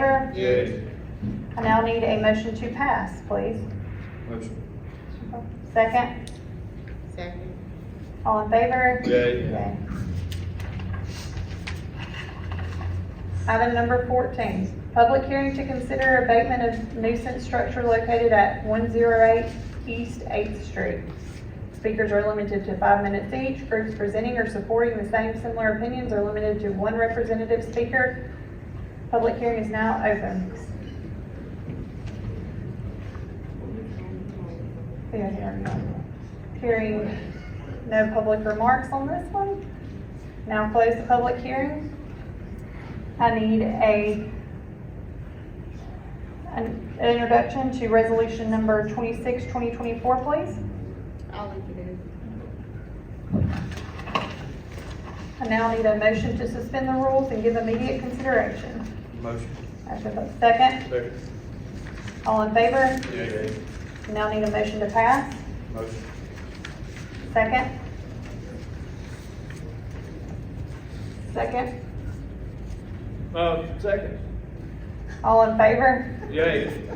favor? Yay. I now need a motion to pass, please. Motion. Second, Second. all in favor? Yay. Yay. Item number fourteen, public hearing to consider abatement of nuisance structure located at one zero eight East Eighth Street. Speakers are limited to five minutes each. Groups presenting or supporting the same similar opinions are limited to one representative speaker. Public hearing is now open. Yeah, here we go. Hearing no public remarks on this one. Now close the public hearing. I need a, an an introduction to resolution number 26, 2024, please. I'll introduce. I now need a motion to suspend the rules and give immediate consideration. Motion. Motion by second, Second. all in favor? Yay. Now need a motion to pass. Motion. Second? Second, Uh, second. all in favor? Yay.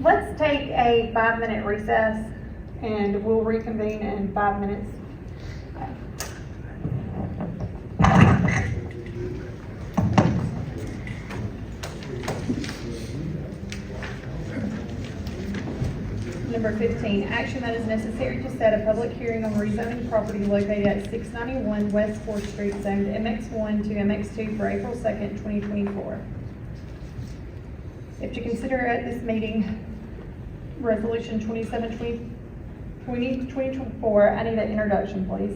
Let's take a five-minute recess, and we'll reconvene in five minutes. Number fifteen, action that is necessary to set a public hearing on rezoning property located at six ninety-one West Fourth Street, zoned MX one to MX two for April second, twenty twenty-four. If to consider at this meeting, resolution twenty-seven, twenty, twenty, twenty-four, I need an introduction, please.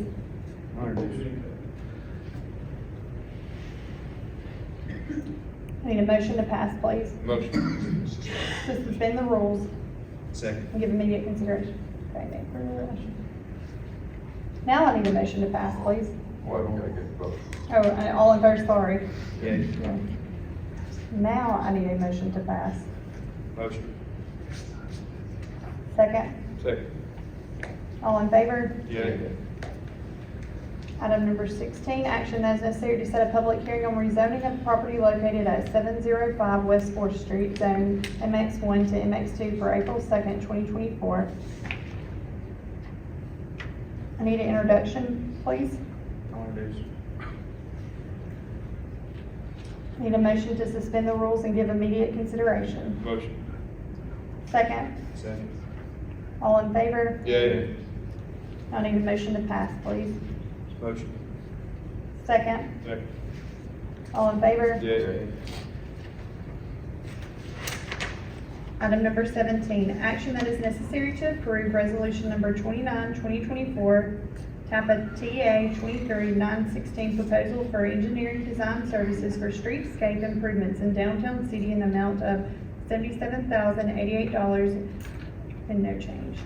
I need a motion to pass, please, Motion. to suspend the rules Second. and give immediate consideration. Okay, thank you very much. Now I need a motion to pass, please. Why don't I get both? Oh, and all in favor, sorry. Yay. Yeah. Now I need a motion to pass. Motion. Second, Second. all in favor? Yay. Item number sixteen, action that is necessary to set a public hearing on rezoning of property located at seven zero five West Fourth Street, zone MX one to MX two for April second, twenty twenty-four. I need an introduction, please. I'll introduce. I Need a motion to suspend the rules and give immediate consideration. Motion. Second, Second. all in favor? Yay. I need a motion to pass, please. Motion. Second, Second. all in favor? Yay. Item number seventeen, action that is necessary to approve resolution number 29, 2024, type of TA twenty-three nine sixteen proposal for engineering design services for streetscape improvements in downtown city in the amount of seventy-seven thousand eighty-eight dollars and no change.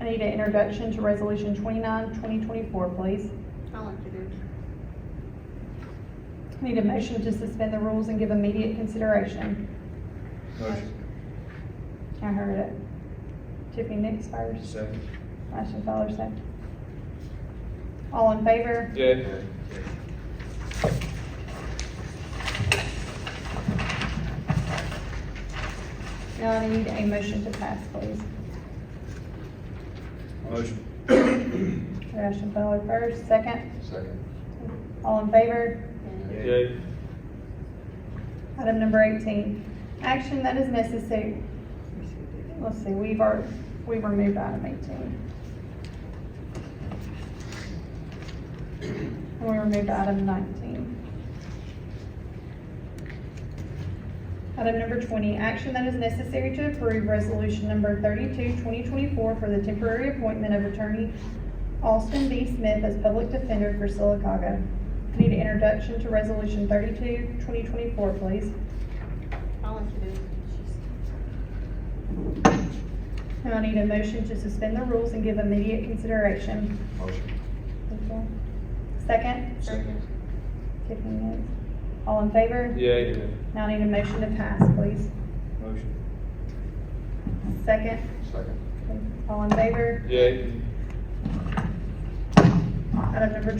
I need an introduction to resolution 29, 2024, please. I'll introduce. I Need a motion to suspend the rules and give immediate consideration. Motion. I heard it. Tiffany Nix first. Second. Ashton Fowler second. All in favor? Yay. Now I need a motion to pass, please. Motion. Ashton Fowler first, second. Second. All in favor? Okay. Yay. Item number eighteen, action that is necessary. Let's see, we've already, we've removed item eighteen. And we removed item nineteen. Item number twenty, action that is necessary to approve resolution number 32, 2024, for the temporary appointment of attorney Austin B. Smith as public defender for Silicaga. I need an introduction to resolution 32, 2024, please. I'll introduce. And I need a motion to suspend the rules and give immediate consideration. Motion. Second, Second. Tiffany Nix. All in favor? Yay. Now I need a motion to pass, please. Motion. Second, Second. all in favor? Yay. Item number